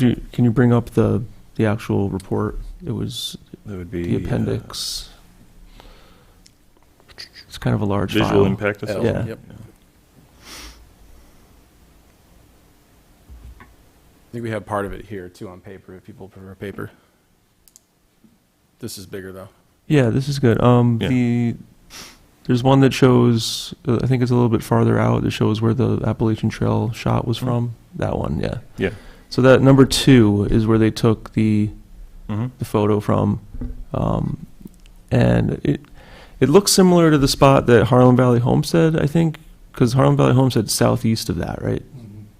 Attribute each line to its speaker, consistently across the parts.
Speaker 1: Do, you- can you bring up the, the actual report? It was
Speaker 2: That would
Speaker 1: the
Speaker 2: be. uh,
Speaker 1: appendix. It's kind of a large
Speaker 2: Visual
Speaker 1: file.
Speaker 2: impact
Speaker 3: L,
Speaker 2: assessment.
Speaker 3: Yep. I think we have part of it here too on paper, if people prefer paper. This is bigger though.
Speaker 1: Yeah, this is good. Um,
Speaker 2: Yeah.
Speaker 1: the, there's one that shows, uh, I think it's a little bit farther out, that shows where the Appalachian Trail shot was
Speaker 2: Mm.
Speaker 1: from. That one, yeah.
Speaker 2: Yeah.
Speaker 1: So that number two is where they took the,
Speaker 2: Mhm.
Speaker 1: the photo from. Um, and it it looks similar to the spot that Harlem Valley Homestead, I think, because Harlem Valley Homestead's southeast of that, right?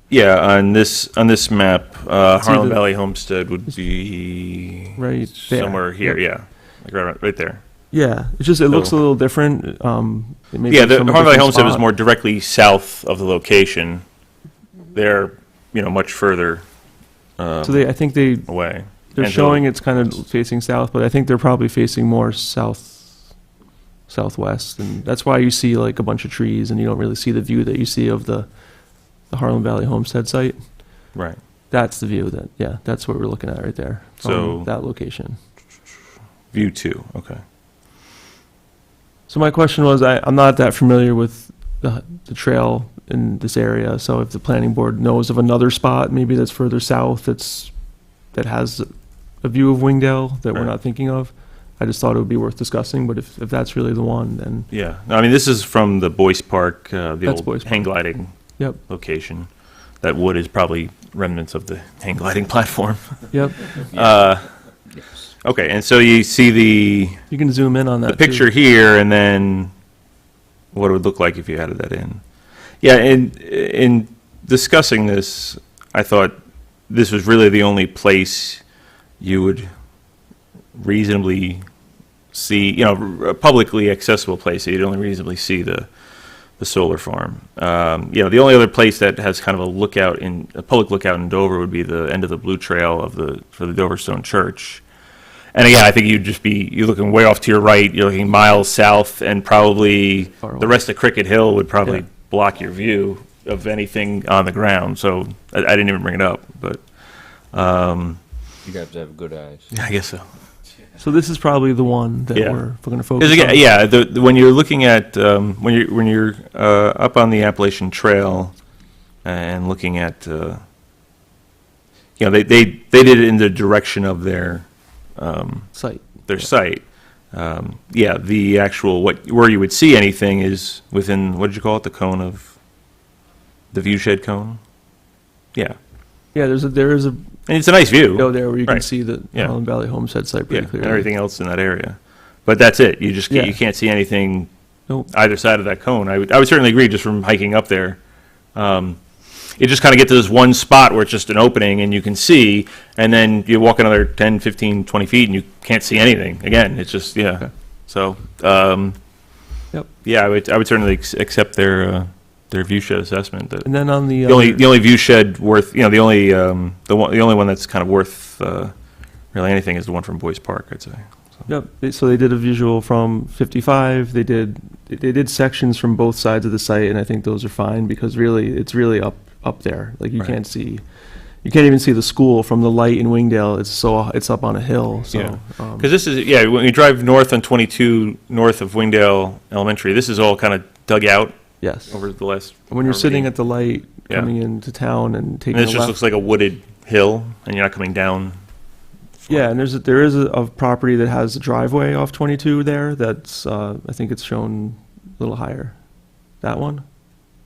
Speaker 2: Yeah, on this, on this map, uh,
Speaker 1: It's either-
Speaker 2: Harlem Valley Homestead would be.
Speaker 1: Right there.
Speaker 2: Somewhere here, yeah. Like right, right there.
Speaker 1: Yeah, it's just, it looks a
Speaker 2: So-
Speaker 1: little different. Um, it may be
Speaker 2: Yeah, the
Speaker 1: from a
Speaker 2: Harlem Valley
Speaker 1: different
Speaker 2: Homestead was
Speaker 1: spot.
Speaker 2: more directly south of the location. They're, you know, much further um,
Speaker 1: So they, I think they,
Speaker 2: away.
Speaker 1: they're
Speaker 2: And so-
Speaker 1: showing it's kind of facing south, but I think they're probably facing more south, southwest. And that's why you see like a bunch of trees and you don't really see the view that you see of the, the Harlem Valley Homestead site.
Speaker 2: Right.
Speaker 1: That's the view that, yeah, that's what we're looking at right there. from
Speaker 2: So-
Speaker 1: That location.
Speaker 2: View two, okay.
Speaker 1: So my question was, I, I'm not that familiar with the, the trail in this area, so if the planning board knows of another spot, maybe that's further south, that's, that has a view of Wingdale that we're
Speaker 2: Right.
Speaker 1: not thinking of, I just thought it would be worth discussing, but if, if that's really the one, then,
Speaker 2: Yeah, No, I mean, this is from the Boyce Park, uh, the
Speaker 1: That's
Speaker 2: old
Speaker 1: Boyce
Speaker 2: hang gliding
Speaker 1: Yep.
Speaker 2: location. That wood is probably remnants of the hang gliding platform.
Speaker 1: yep,
Speaker 2: Uh, Okay, and so you see the,
Speaker 1: you can zoom in on that
Speaker 2: the
Speaker 1: too.
Speaker 2: picture here, and then what it would look like if you added that in. Yeah, and in discussing this, I thought this was really the only place you would reasonably see, you know, a publicly accessible place that you'd only reasonably see the, the solar farm. Um, you know, the only other place that has kind of a lookout in a public lookout in Dover would be the end of the Blue Trail of the for the Dover Stone Church. And again, I think you'd just be you're looking way off to your right. You're looking miles south, and probably
Speaker 1: Far away.
Speaker 2: the rest of Cricket Hill would probably
Speaker 1: Yeah.
Speaker 2: block your view of anything on the ground. So I, I didn't even bring it up, but um,
Speaker 4: You'd have to have good eyes.
Speaker 2: I guess so.
Speaker 1: So this is probably the one that we're,
Speaker 2: Yeah.
Speaker 1: we're gonna
Speaker 2: Because
Speaker 1: focus
Speaker 2: again,
Speaker 1: on.
Speaker 2: yeah, the, the- when you're looking at, um, when you're, when you're uh, up on the Appalachian Trail and looking at, uh, you know, they, they, they did it in the direction of their,
Speaker 1: Site,
Speaker 2: their site. Um, Yeah, the actual, what, where you would see anything is within, what did you call it, the cone of, the viewshed cone? Yeah,
Speaker 1: yeah, there's a, there is a,
Speaker 2: and it's a nice view.
Speaker 1: go there where you can
Speaker 2: Right.
Speaker 1: see the
Speaker 2: Yeah.
Speaker 1: Harlem Valley Homestead site
Speaker 2: Yeah,
Speaker 1: pretty
Speaker 2: and
Speaker 1: clearly.
Speaker 2: everything else in that area. But that's it. You just,
Speaker 1: Yeah.
Speaker 2: you can't see anything
Speaker 1: Nope.
Speaker 2: either side of that cone. I would, I would certainly agree just from hiking up there. Um, you just kind of get to this one spot where it's just an opening and you can see, and then you walk another 10, 15, 20 feet and you can't see anything. Again, it's just, yeah.
Speaker 1: Okay.
Speaker 2: So, um,
Speaker 1: Yep.
Speaker 2: yeah, I would, I would certainly ac- accept their, uh, their view shed assessment. That
Speaker 1: And then on the.
Speaker 2: the only
Speaker 1: other-
Speaker 2: the only view shed worth you know the only um, the one the only one that's kind of worth uh, really anything is the one from Boys Park I'd say.
Speaker 1: Yep, they- so they did a visual from 55, they did, they did sections from both sides of the site, and I think those are fine, because really, it's really up, up there, like, you
Speaker 2: Right.
Speaker 1: can't see, you can't even see the school from the light in Wingdale, it's so, it's up on a hill, so. um,
Speaker 2: Because this is yeah when you drive north on 22 north of Wingdale Elementary this is all kind of dug out
Speaker 1: Yes,
Speaker 2: over the last.
Speaker 1: when you're
Speaker 2: however
Speaker 1: sitting
Speaker 2: many-
Speaker 1: at the light,
Speaker 2: Yeah.
Speaker 1: coming into town and
Speaker 2: and
Speaker 1: taking a
Speaker 2: this just looks
Speaker 1: left.
Speaker 2: like a wooded hill and you're not coming down.
Speaker 1: Yeah, and there's, a- there is a, a property that has a driveway off 22 there, that's, uh, I think it's shown a little higher. That one?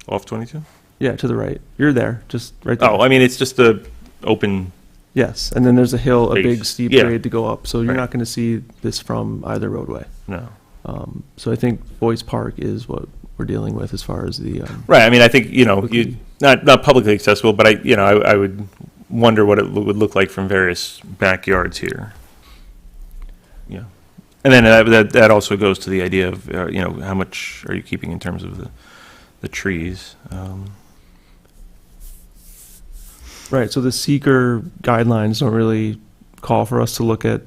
Speaker 2: off 22.
Speaker 1: Yeah, to the right, you're there, just right there.
Speaker 2: Oh, I mean it's just the open
Speaker 1: Yes, and then there's a hill, a
Speaker 2: Base.
Speaker 1: big steep
Speaker 2: Yeah.
Speaker 1: grade to go up, so you're
Speaker 2: Right.
Speaker 1: not going to see this from either roadway.
Speaker 2: no.
Speaker 1: Um, So I think Boyce Park is what we're dealing with as far as the, um,
Speaker 2: Right. I mean, I think you know,
Speaker 1: Quickly.
Speaker 2: you, not not publicly accessible, but I you know, I, I would wonder what it lo- would look like from various backyards here. Yeah, and then that that, that also goes to the idea of uh, you know how much are you keeping in terms of the the trees. Um,
Speaker 1: right, so the seeker guidelines don't really call for us to look at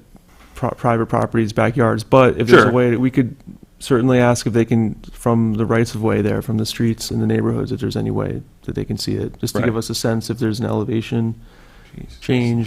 Speaker 1: pro- private properties, backyards, but if there's a
Speaker 2: Sure.
Speaker 1: way, that we could certainly ask if they can, from the rights of way there, from the streets and the neighborhoods, if there's any way that they can see it, just to
Speaker 2: Right.
Speaker 1: give us a sense if there's an elevation
Speaker 2: piece.
Speaker 1: change